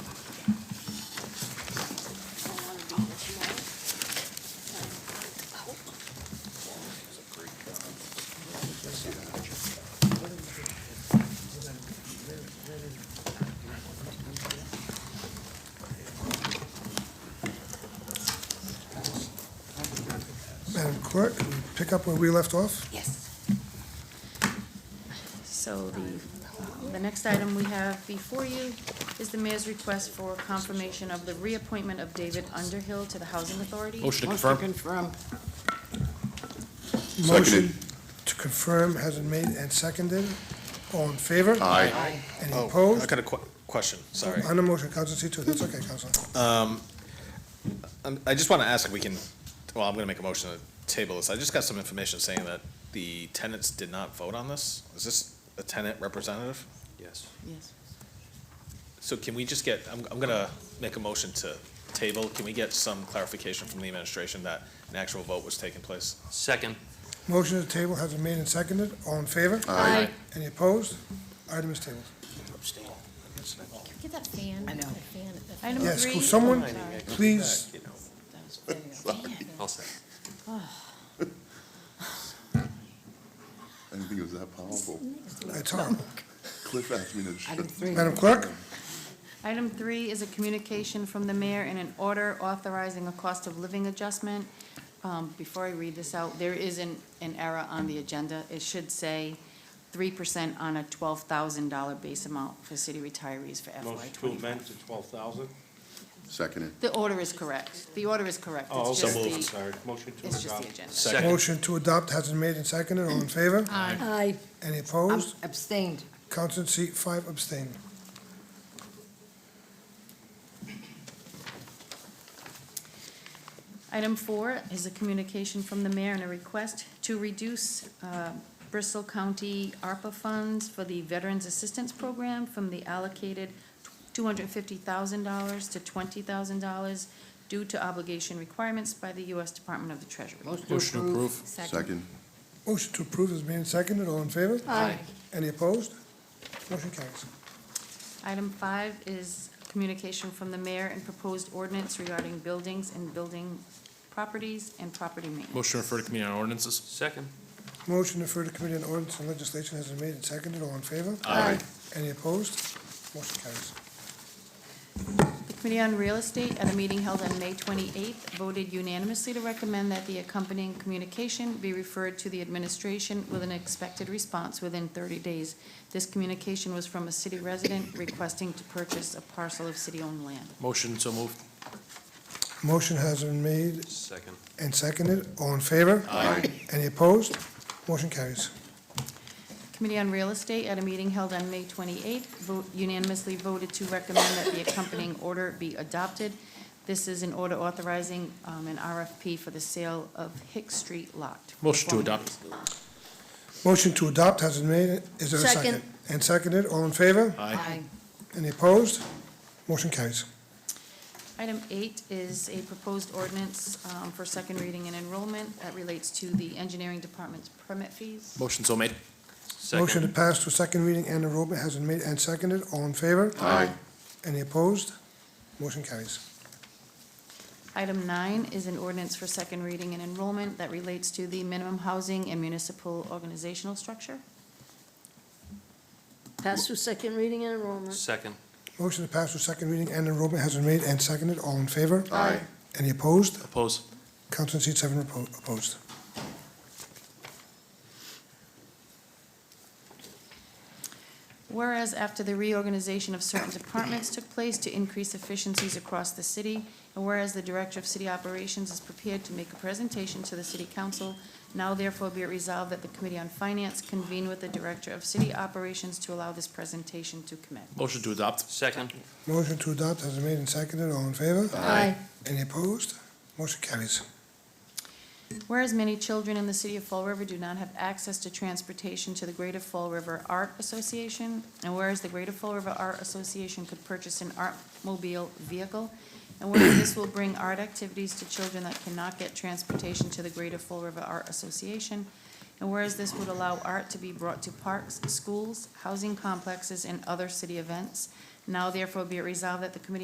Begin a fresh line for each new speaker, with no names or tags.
pick up where we left off?
Yes. So the, the next item we have before you is the mayor's request for confirmation of the reappointment of David Underhill to the Housing Authority.
Motion to
Motion to
confirm.
confirm.
Motion to confirm has been made and seconded. All in favor?
Aye.
Any
Oh, I
opposed?
got a que- question, sorry.
On the motion, Counselor Tito, that's okay, Counselor.
Um, I just want to ask if we can, well, I'm going to make a motion to table this. I just got some information saying that the tenants did not vote on this. Is this a tenant representative?
Yes.
Yes.
So can we just get, I'm, I'm going to make a motion to table. Can we get some clarification from the administration that an actual vote was taking place?
Second.
Motion to table has been made and seconded. All in favor?
Aye.
Any opposed? Item is tabled.
Get that fan.
I know.
That fan, that fan.
Item
Yes,
three.
could someone
Sorry.
please,
I'll say.
I didn't think it was that powerful.
it's hard.
Cliff asked me to. shut-
Item three.
Madam Clerk?
Item three is a communication from the mayor and an order authorizing a cost of living adjustment. Um, Before I read this out, there is an, an error on the agenda. It should say three percent on a twelve thousand dollar base amount for city retirees for FY
Motion to
twenty-five.
amend to twelve thousand?
Seconded.
The order is correct. The order is correct.
Oh,
It's
so
just the-
moved, sorry. Motion to
It's just
adopt.
the agenda.
Second.
Motion to adopt has been made and seconded. All in favor?
Aye.
Any opposed?
Abstained.
Counselor seat five abstained.
Item four is a communication from the mayor and a request to reduce uh, Bristol County ARPA funds for the Veterans Assistance Program from the allocated two hundred fifty thousand dollars to twenty thousand dollars due to obligation requirements by the U.S. Department of the Treasury.
Motion to approve.
Second.
Motion to approve has been made and seconded. All in favor?
Aye.
Any opposed? Motion carries.
Item five is communication from the mayor and proposed ordinance regarding buildings and building properties and property maintenance.
Motion to refer to committee on ordinances.
Second.
Motion to refer to Committee on Ordinance and Legislation has been made and seconded. All in favor?
Aye.
Any opposed? Motion carries.
The Committee on Real Estate, at a meeting held on May 28th, voted unanimously to recommend that the accompanying communication be referred to the administration with an expected response within 30 days. This communication was from a city resident requesting to purchase a parcel of city-owned land.
Motion so moved.
Motion has been made
Second.
and seconded. All in favor?
Aye.
Any opposed? Motion carries.
Committee on Real Estate, at a meeting held on May 28th, vote- unanimously voted to recommend that the accompanying order be adopted. This is an order authorizing um, an RFP for the sale of Hick Street lot.
Motion to adopt.
Motion to adopt has been made. Is there a second?
Second.
And seconded. All in favor?
Aye.
Any opposed? Motion carries.
Item eight is a proposed ordinance um, for second reading and enrollment that relates to the engineering department's permit fees.
Motion so made.
Motion to
Second.
pass to second reading and enrollment has been made and seconded. All in favor?
Aye.
Any opposed? Motion carries.
Item nine is an ordinance for second reading and enrollment that relates to the minimum housing and municipal organizational structure.
Pass through second reading and enrollment.
Second.
Motion to pass to second reading and enrollment has been made and seconded. All in favor?
Aye.
Any opposed?
Oppose.
Counselor in seat seven oppo- opposed.
Whereas after the reorganization of certain departments took place to increase efficiencies across the city, and whereas the Director of City Operations is prepared to make a presentation to the City Council, now therefore be it resolved that the Committee on Finance convene with the Director of City Operations to allow this presentation to commence.
Motion to adopt.
Second.
Motion to adopt has been made and seconded. All in favor?
Aye.
Any opposed? Motion carries.
Whereas many children in the city of Fall River do not have access to transportation to the Greater Fall River Art Association, and whereas the Greater Fall River Art Association could purchase an art mobile vehicle, and whereas this will bring art activities to children that cannot get transportation to the Greater Fall River Art Association, and whereas this would allow art to be brought to parks, schools, housing complexes, and other city events, now therefore be it resolved that the Committee